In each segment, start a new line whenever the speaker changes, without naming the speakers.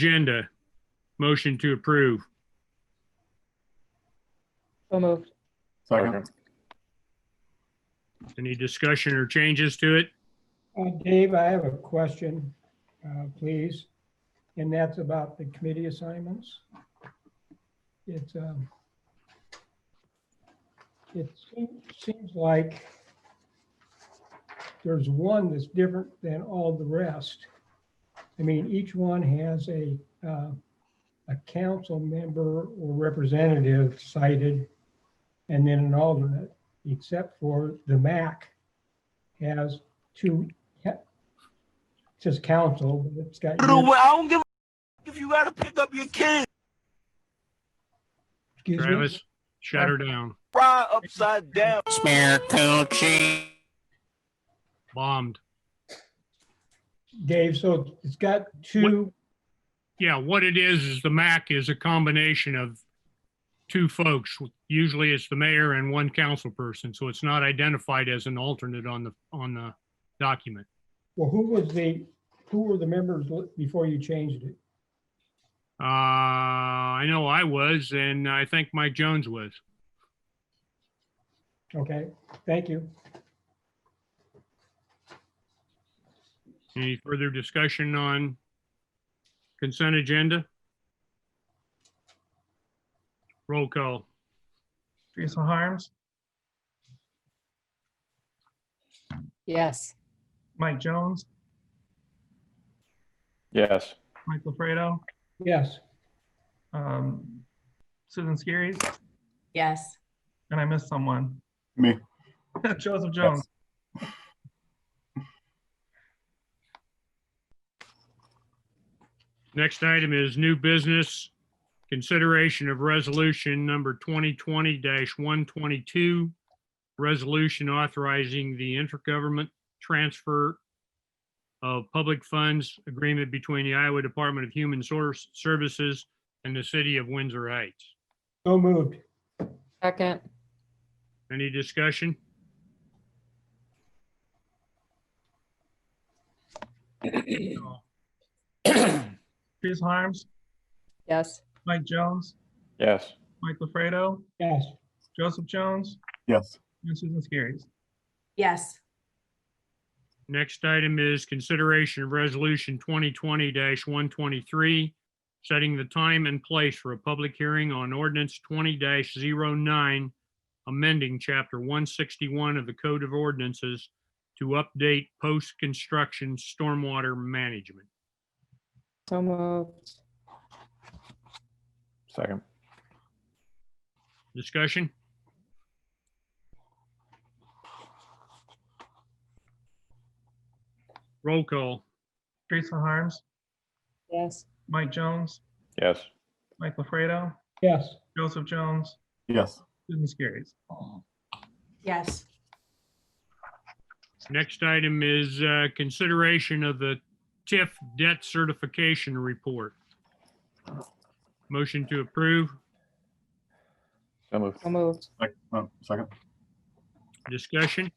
agenda. Motion to approve.
So moved.
Second.
Any discussion or changes to it?
Uh, Dave, I have a question, uh, please, and that's about the committee assignments. It's, um, it seem- seems like there's one that's different than all the rest. I mean, each one has a, uh, a council member or representative cited, and then an alternate, except for the MAC has two it says council, but it's got,
Get away. I don't give a f- if you gotta pick up your kid.
excuse me,
Travis, shut her down.
Fry upside down.
Bombed.
Dave, so it's got two,
Yeah, what it is, is the MAC is a combination of two folks. Usually it's the mayor and one council person, so it's not identified as an alternate on the, on the document.
well, who was the, who were the members li- before you changed it?
Uh, I know I was, and I think Mike Jones was.
Okay, thank you.
Any further discussion on consent agenda? Roll call.
Teresa Harms,
Yes.
Mike Jones,
Yes.
Mike LaFredo,
Yes,
um, Susan Skerrys,
Yes,
and I missed someone.
Me.
Joseph Jones.
Next item is new business. Consideration of resolution number 2020-122. Resolution authorizing the intergovernment transfer of public funds agreement between the Iowa Department of Human Source Services and the city of Windsor Heights.
so moved.
Second.
Any discussion?
Teresa Harms,
Yes.
Mike Jones,
Yes.
Mike LaFredo,
Yes,
Joseph Jones,
Yes.
and Susan Skerrys.
yes,
Next item is consideration of resolution twenty twenty one twenty-three, setting the time and place for a public hearing on ordinance twenty 9 amending chapter one sixty-one of the Code of Ordinances to update post-construction stormwater management.
So moved.
Second.
Discussion? Roll call.
Teresa Harms,
Yes.
Mike Jones,
Yes.
Mike LaFredo,
yes,
Joseph Jones,
Yes.
Susan Skerrys.
yes,
Next item is uh, consideration of the TIF debt certification report. Motion to approve,
So moved.
So moved.
Sec- oh, Second.
discussion.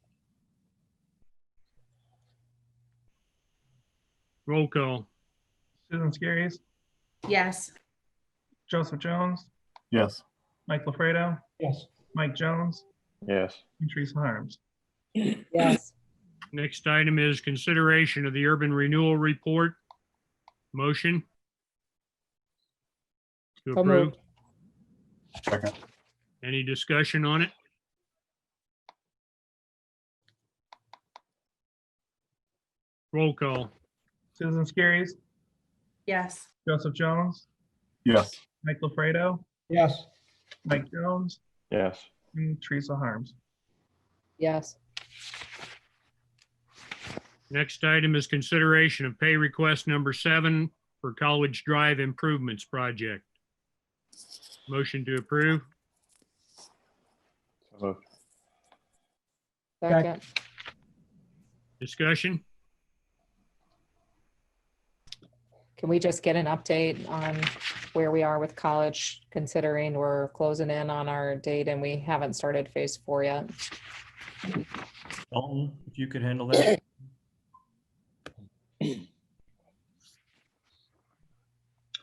Roll call,
Susan Skerrys,
yes,
Joseph Jones,
Yes.
Mike LaFredo,
yes,
Mike Jones,
Yes.
and Teresa Harms.
Yes.
next item is consideration of the urban renewal report. Motion. To
So
approve,
moved.
Second.
any discussion on it? Roll call.
Susan Skerrys,
yes,
Joseph Jones,
Yes.
Mike LaFredo,
yes,
Mike Jones,
Yes.
and Teresa Harms.
Yes.
Next item is consideration of pay request number seven for College Drive Improvements Project. Motion to approve,
So moved.
Second.
discussion,
Can we just get an update on where we are with college, considering we're closing in on our date and we haven't started phase four yet?
Dalton, if you could handle that.